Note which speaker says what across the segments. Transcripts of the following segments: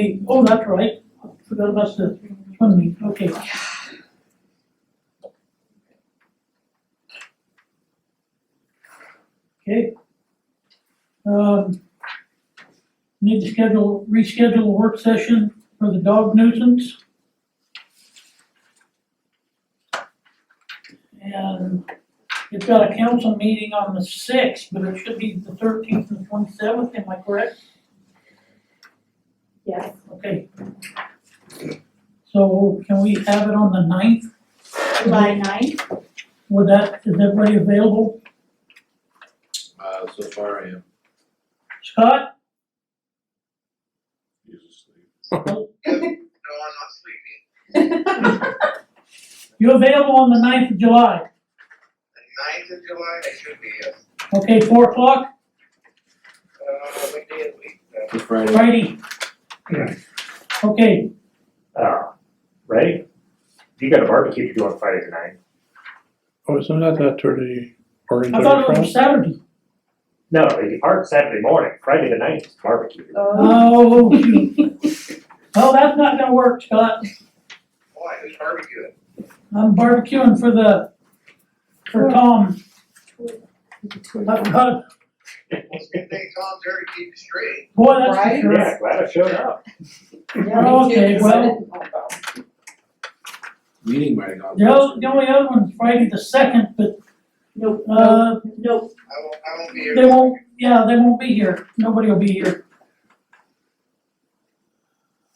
Speaker 1: Hey, oh, that's right, forgot about the funding, okay. Okay. Um, need to schedule, reschedule a work session for the dog nuisance. And it's got a council meeting on the sixth, but it should be the thirteenth and twenty-seventh, am I correct?
Speaker 2: Yes,
Speaker 1: Okay. So can we have it on the ninth?
Speaker 2: July ninth,
Speaker 1: Would that, is everybody available?
Speaker 3: Uh, so far I am.
Speaker 1: Scott?
Speaker 4: No, I'm not sleeping.
Speaker 1: You available on the ninth of July?
Speaker 4: The ninth of July, I should be, uh,
Speaker 1: Okay, four o'clock,
Speaker 4: uh, what day of the week, uh,
Speaker 3: It's Friday.
Speaker 1: Friday. Okay,
Speaker 5: Ah, right? You got a barbecue to do on Friday night.
Speaker 6: Oh, isn't that that dirty orange?
Speaker 1: I thought it was Saturday.
Speaker 5: No, they depart Saturday morning, Friday the ninth is barbecue.
Speaker 2: oh,
Speaker 1: Oh, gee. Oh, that's not gonna work, Scott.
Speaker 4: why, who's barbecuing?
Speaker 1: I'm barbecuing for the, for Tom.
Speaker 7: Oh,
Speaker 1: I forgot.
Speaker 4: Well, it's a good thing Tom Terry keep it straight.
Speaker 1: Boy, that's for
Speaker 2: Right?
Speaker 1: sure.
Speaker 5: Yeah, glad I showed up.
Speaker 1: Okay, well,
Speaker 3: Meeting might have gone.
Speaker 1: the other- the only other one's Friday the second, but,
Speaker 2: nope, nope,
Speaker 1: uh,
Speaker 2: nope,
Speaker 4: I won't, I won't be here.
Speaker 1: They won't, yeah, they won't be here, nobody will be here.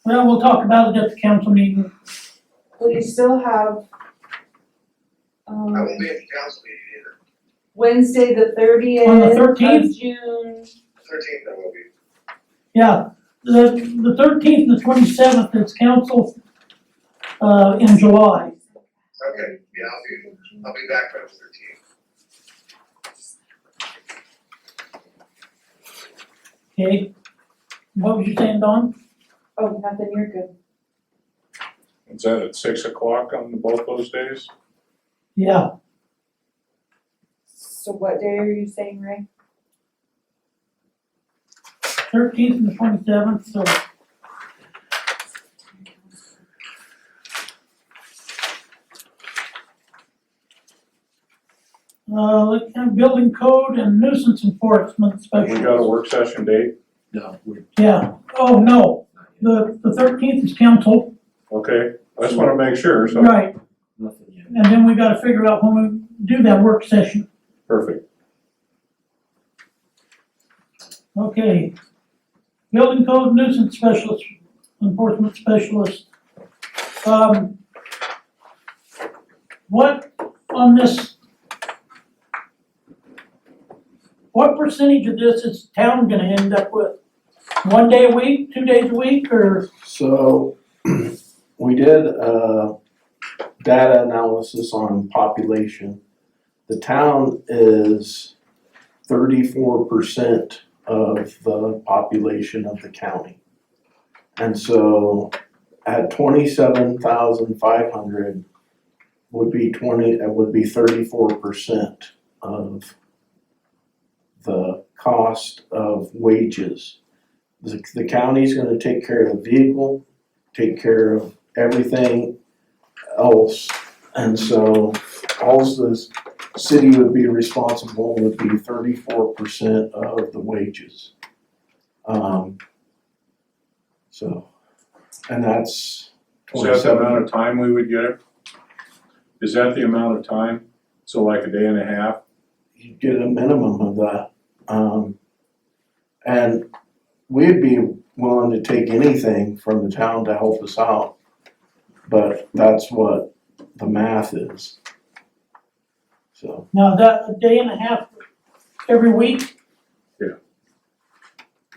Speaker 1: Well, we'll talk about it at the council meeting,
Speaker 7: Well, you still have, um,
Speaker 4: I won't be at the council meeting either.
Speaker 7: Wednesday, the thirtieth
Speaker 1: On the
Speaker 7: of
Speaker 1: 13th?
Speaker 7: June.
Speaker 4: Thirteenth I will be.
Speaker 1: yeah, the, the thirteenth and the twenty-seventh is council, uh, in July.
Speaker 4: Okay, yeah, I'll be, I'll be back by the thirteenth.
Speaker 1: Okay, what was you saying, Don?
Speaker 7: Oh, nothing, you're good.
Speaker 8: Is that at six o'clock on the- both those days?
Speaker 1: Yeah,
Speaker 7: So what day are you saying, Ray?
Speaker 1: thirteenth and the twenty-seventh, so, uh, like, uh, building code and nuisance enforcement
Speaker 8: We got a
Speaker 1: special,
Speaker 8: work session date,
Speaker 3: No, we're
Speaker 1: yeah, oh, no,
Speaker 3: not yet,
Speaker 1: the, the thirteenth is council,
Speaker 8: okay? I just wanna make sure, so,
Speaker 1: right,
Speaker 3: nothing yet.
Speaker 1: and then we gotta figure out when we do that work session,
Speaker 8: perfect.
Speaker 1: okay. Building code nuisance specialist, enforcement specialist, um. What on this? What percentage of this is town gonna end up with? One day a week, two days a week, or,
Speaker 9: So, we did a data analysis on population. The town is thirty-four percent of the population of the county. And so at twenty-seven thousand five hundred would be twenty, it would be thirty-four percent of the cost of wages. The, the county's gonna take care of the vehicle, take care of everything else. And so alls the city would be responsible would be thirty-four percent of the wages. Um, so, and that's
Speaker 8: Is that the amount
Speaker 9: twenty-seven.
Speaker 8: of time we would get it? Is that the amount of time? So like a day and a half?
Speaker 9: You get a minimum of that. Um, and we'd be willing to take anything from the town to help us out. But that's what the math is. So.
Speaker 1: now that, a day and a half every week?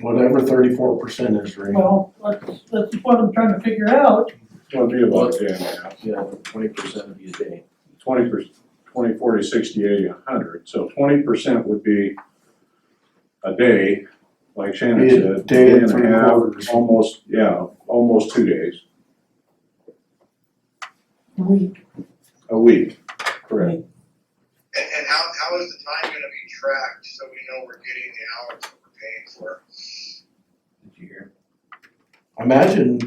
Speaker 9: whatever thirty-four percent is, right?
Speaker 1: Well, that's, that's what I'm trying to figure out,
Speaker 8: It'll be about a day and a half.
Speaker 3: Yeah, twenty percent of your day.
Speaker 8: Twenty percent, twenty, forty, sixty, eighty, a hundred. So twenty percent would be a day, like Shannon
Speaker 9: Be a
Speaker 8: said,
Speaker 9: day
Speaker 8: day
Speaker 9: and
Speaker 8: and a
Speaker 9: three
Speaker 8: half,
Speaker 9: quarters.
Speaker 8: almost, yeah, almost two days,
Speaker 1: a week,
Speaker 8: a week.
Speaker 1: right?
Speaker 4: And, and how, how is the time gonna be tracked so we know we're getting the hours that we're paying for?
Speaker 3: Did you hear?
Speaker 9: imagine